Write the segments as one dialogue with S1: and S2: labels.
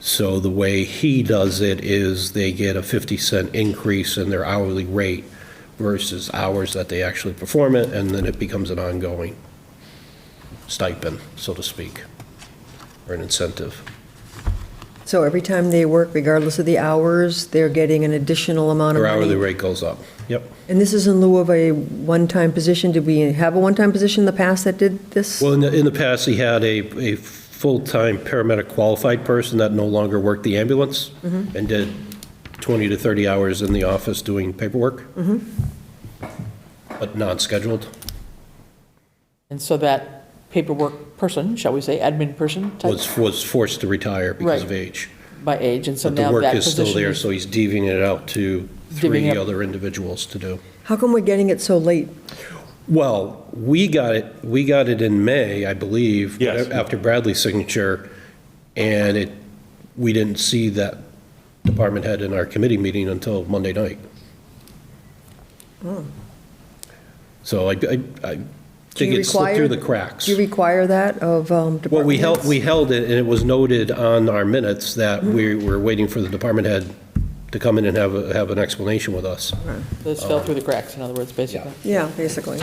S1: So the way he does it is they get a 50 cent increase in their hourly rate versus hours that they actually perform it, and then it becomes an ongoing stipend, so to speak, or an incentive.
S2: So every time they work, regardless of the hours, they're getting an additional amount of
S1: Their hourly
S2: money?
S1: rate goes up. Yep.
S2: And this is in lieu of a one-time position? Did we have a one-time position in the past that did this?
S1: Well, in the, in the past, he had a, a full-time paramedic qualified person that no longer worked the ambulance and did 20 to 30 hours in the office doing paperwork. But non-scheduled.
S3: And so that paperwork person, shall we say, admin person type
S1: was, was forced to retire because of
S3: Right.
S1: age.
S3: by age, and so
S1: But the
S3: now that
S1: work is still
S3: position
S1: there,
S3: is
S1: so he's divvying it out to three
S3: Divvying up.
S1: other individuals to do.
S2: How come we're getting it so late?
S1: Well, we got it, we got it in May, I believe.
S4: Yes.
S1: After Bradley's signature, and it, we didn't see that department head in our committee meeting until Monday night.
S3: Hmm.
S1: So I, I, I
S2: Do you
S1: think it slipped
S2: require-
S1: through the cracks.
S2: Do you require that of um, department
S1: Well, we held,
S2: heads?
S1: we held it, and it was noted on our minutes that we were waiting for the department head to come in and have, a- have an explanation with us.
S3: This fell
S1: uh,
S3: through the cracks, in other words, basically.
S2: Yeah, basically.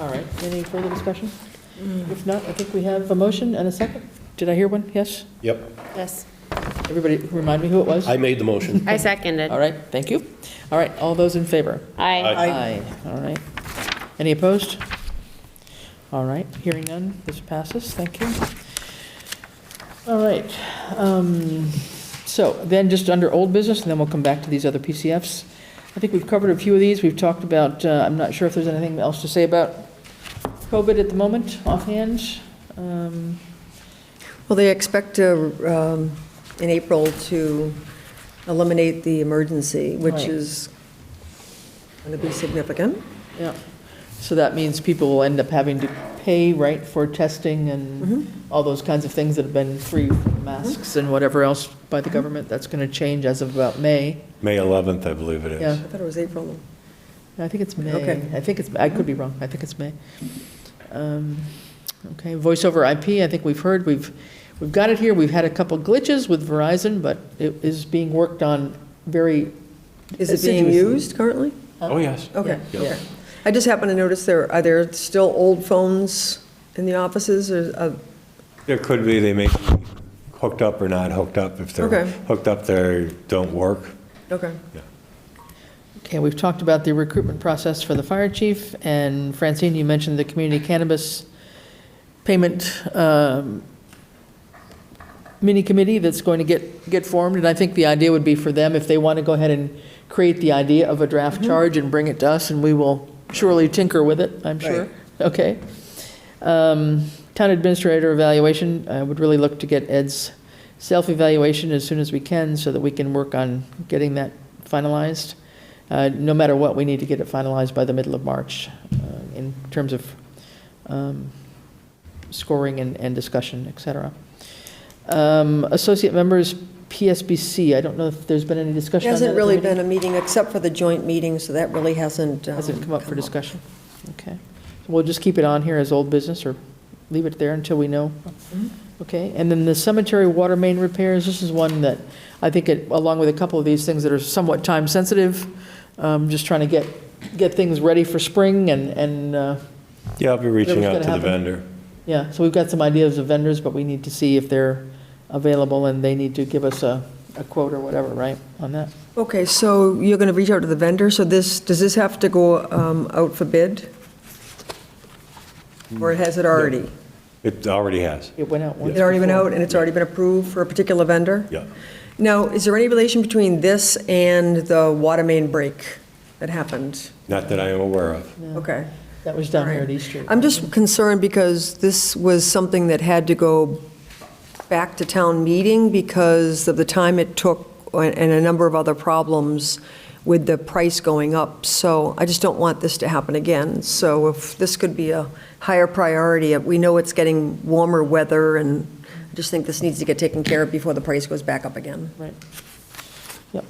S3: All right, any further discussion? If not, I think we have a motion and a second. Did I hear one? Yes?
S1: Yep.
S5: Yes,
S3: Everybody remind me who it was?
S1: I made the motion.
S5: I seconded.
S3: All right, thank you. All right, all those in favor?
S5: Aye.
S3: Aye. All right. Any opposed? All right, hearing none, this passes, thank you. All right, um, so then just under old business, and then we'll come back to these other PCFs. I think we've covered a few of these, we've talked about, uh, I'm not sure if there's anything else to say about COVID at the moment, offhand. Um,
S2: Well, they expect to, um, in April, to eliminate the emergency, which
S3: Right.
S2: is going to be significant.
S3: Yeah, so that means people will end up having to pay, right, for testing and all those kinds of things that have been free, masks and whatever else by the government, that's going to change as of about May.
S4: May 11th, I believe it
S3: Yeah.
S4: is.
S2: I thought it was April.
S3: I think it's May.
S2: Okay.
S3: I think it's, I could be wrong, I think it's May. Um, Okay, voice over IP, I think we've heard, we've, we've got it here, we've had a couple glitches with Verizon, but it is being worked on very.
S2: Is it being
S3: Assiduously.
S2: used currently?
S4: Oh, yes.
S2: Okay,
S3: Yeah.
S2: okay. I just happened to notice there, are there still old phones in the offices or, uh,
S4: There could be, they may be hooked up or not hooked up. If they're
S2: Okay.
S4: hooked up, they don't work.
S2: okay.
S3: Okay, we've talked about the recruitment process for the fire chief, and Francine, you mentioned the community cannabis payment um, mini committee that's going to get, get formed, and I think the idea would be for them, if they want to go ahead and create the idea of a draft charge and bring it to us, and we will surely tinker with it, I'm sure.
S2: Right.
S3: Okay. Um, Town administrator evaluation, I would really look to get Ed's self-evaluation as soon as we can, so that we can work on getting that finalized. Uh, No matter what, we need to get it finalized by the middle of March uh, in terms of um, scoring and, and discussion, et cetera. Um, Associate members, PSBC, I don't know if there's been any discussion on that.
S2: Hasn't
S3: at the
S2: really
S3: meeting?
S2: been a meeting except for the joint meeting, so that really hasn't. um,
S3: Hasn't come up for discussion? Okay. So We'll just keep it on here as old business or leave it there until we know.
S2: Mm-hmm.
S3: Okay, and then the cemetery water main repairs, this is one that I think it, along with a couple of these things that are somewhat time sensitive, um, just trying to get, get things ready for spring and, and, uh,
S4: Yeah, I'll be reaching
S3: Whatever's
S4: out to
S3: gonna
S4: the
S3: happen.
S4: vendor.
S3: yeah, so we've got some ideas of vendors, but we need to see if they're available and they need to give us a, a quote or whatever, right, on that?
S2: Okay, so you're going to reach out to the vendor, so this, does this have to go um, out for bid? Or has it already?
S4: It already has.
S3: It went out once
S2: It's already been
S3: before.
S2: out and it's already been approved for a particular vendor?
S4: Yeah.
S2: Now, is there any relation between this and the water main break that happened?
S4: Not that I am aware of.
S2: Okay.
S3: That was down here
S2: All
S3: at
S2: right.
S3: East Street.
S2: I'm just concerned because this was something that had to go back to town meeting because of the time it took and a number of other problems with the price going up. So I just don't want this to happen again. So if this could be a higher priority, uh, we know it's getting warmer weather and I just think this needs to get taken care of before the price goes back up again.
S3: Right. Yep.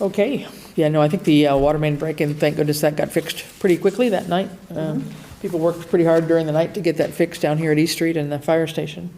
S3: Okay. Yeah, no, I think the uh, water main break-in, thank goodness that got fixed pretty quickly that night. Um, People worked pretty hard during the night to get that fixed down here at East Street and the fire station.